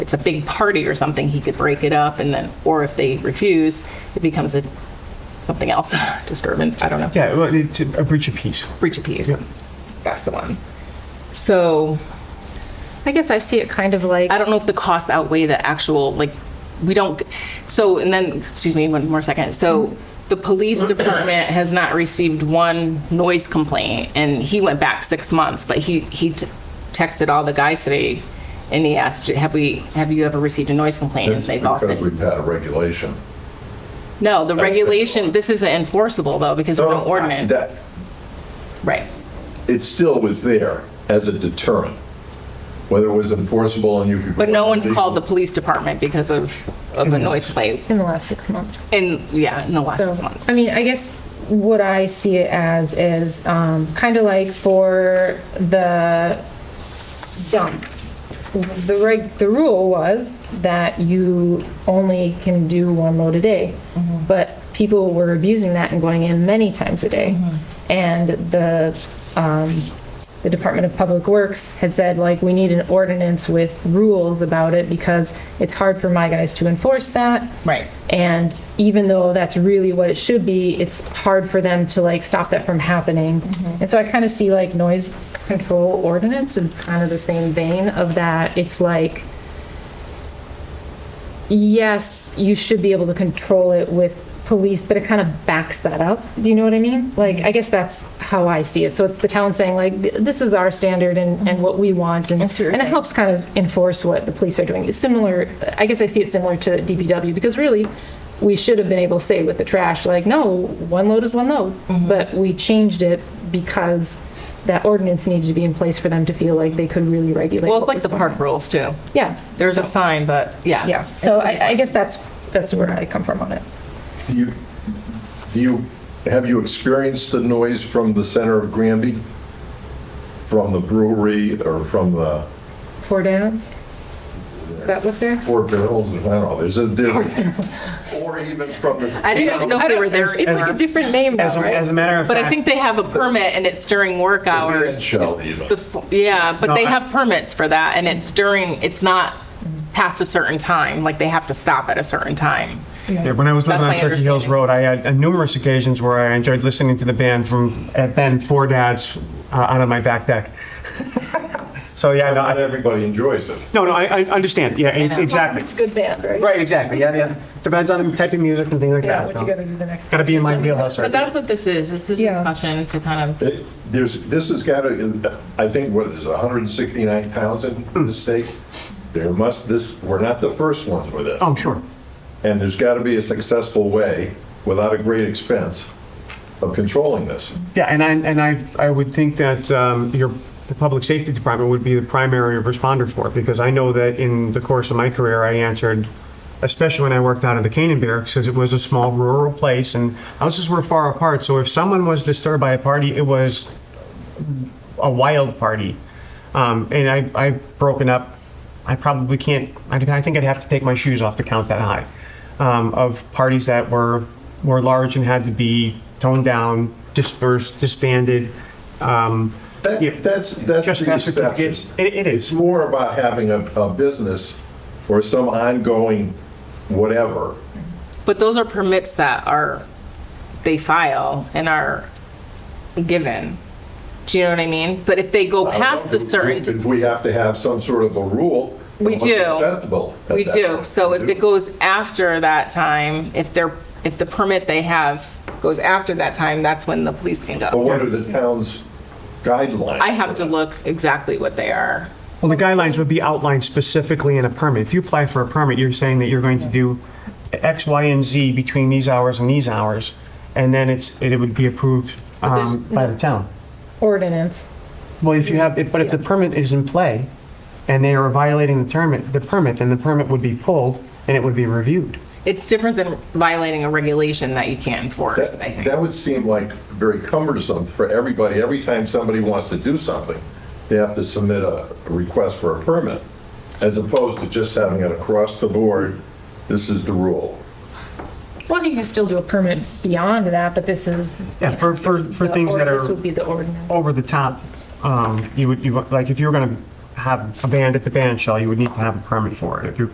it's a big party or something, he could break it up and then, or if they refuse, it becomes a, something else, disturbance, I don't know. Yeah, well, it's a breach of peace. Breach of peace. Yeah. That's the one. So I guess I see it kind of like, I don't know if the costs outweigh the actual, like, we don't, so, and then, excuse me, one more second. So the police department has not received one noise complaint, and he went back six months, but he, he t- texted all the guys today, and he asked, have we, have you ever received a noise complaint? And It's they've all because said, we've had a regulation. no, the regulation, this isn't enforceable, though, because we're an ordinance. Oh, That- Right. It still was there as a deterrent, whether it was enforceable and you could. But no one's called the police department because of, of a noise complaint. in the last six months. And, yeah, in the last six So, months. I mean, I guess what I see it as is um, kind of like for the dump. The reg, the rule was that you only can do one load a day, Mm-hmm. but people were abusing that and going in many times a day. Mm-hmm. And the, um, the Department of Public Works had said, like, we need an ordinance with rules about it because it's hard for my guys to enforce that. Right. And even though that's really what it should be, it's hard for them to like stop that from happening. And so I kind of see like noise control ordinance is kind of the same vein of that. It's like, yes, you should be able to control it with police, but it kind of backs that up. Do you know what I mean? Like, I guess that's how I see it. So it's the town saying like, th- this is our standard and, and what we want. And, I see what you're and it saying. helps kind of enforce what the police are doing. It's similar, I guess I see it similar to DPW because really, we should have been able to say with the trash, like, no, one load is one load. Mm-hmm. But we changed it because that ordinance needed to be in place for them to feel like they could really regulate. Well, it's what like was the going on. park rules, too. Yeah. There's a sign, but yeah. Yeah, so I, I guess that's, that's where I come from on it. Do you, do you, have you experienced the noise from the center of Granby? From the brewery or from the Four downs? Is that what's there? Four Barrels? I don't know, there's a, there's- or even from the. I didn't even know if they were there. It's like a different name As though, a, as right? a matter of But fact. I think they have a permit and it's during work hours. Shell, you know. The f- Yeah, but No, they I- have permits for that and it's during, it's not past a certain time, like they have to stop at a certain time. Yeah, when I was living That's on my Turkey Hills understanding. Road, I had uh, numerous occasions where I enjoyed listening to the band from, and then Four Dads uh, out on my back deck. so yeah, no, Not I, everybody enjoys it. no, no, I, I understand. Yeah, e- know. exactly. It's good band, right? Right, exactly. Yeah, yeah. Depends on the type of music and things like Yeah, that. what you gotta do the next. Got to be in my wheelhouse. But Right? that's what this is. This is Yeah. discussion to kind of, It- There's, this has got to, I think, what is it, 169 towns in the state? There must, this, we're not the first ones with this. oh, sure. And there's got to be a successful way, without a great expense, of controlling this. Yeah, and I, and I, I would think that um, your, the public safety department would be the primary responder for it, because I know that in the course of my career, I answered, especially when I worked out of the Canaan Barracks, because it was a small rural place, and houses were far apart, so if someone was disturbed by a party, it was a wild party. Um, and I, I've broken up, I probably can't, I, I think I'd have to take my shoes off to count that high, um, of parties that were, were large and had to be toned down, dispersed, disbanded. Um, That- yeah, That's, that's the trespass exception. certificates. It, it It's is. more about having a, a business or some ongoing whatever. but those are permits that are, they file and are given. Do you know what I mean? But if they go I don't know, past the do- certain. do We have to have some sort of a rule. of We what's do. acceptable at We that do. point. So if We it do. goes after that time, if they're, if the permit they have goes after that time, that's when the police can But go. what are the town's guidelines? I have to look exactly what they are. Well, the guidelines would be outlined specifically in a permit. If you apply for a permit, you're saying that you're going to do X, Y, and Z between these hours and these hours, and then it's, it would be approved there's um, by the town. Ordinance. Well, if you have, if- but if the permit is in play and they are violating the permit, the permit, then the permit would be pulled and it would be reviewed. It's different than violating a regulation that you can't enforce, I That, think. that would seem like very cumbersome for everybody. Every time somebody wants to do something, they have to submit a a request for a permit, as opposed to just having it across the board, this is the rule. Well, you can still do a permit beyond that, but this is. Yeah, for, for, for the things that ord- This would are be the ordinance. over the top, um, you would, you, would- like, if you were gonna have a band at the band shell, you would need to have a permit for it. If you're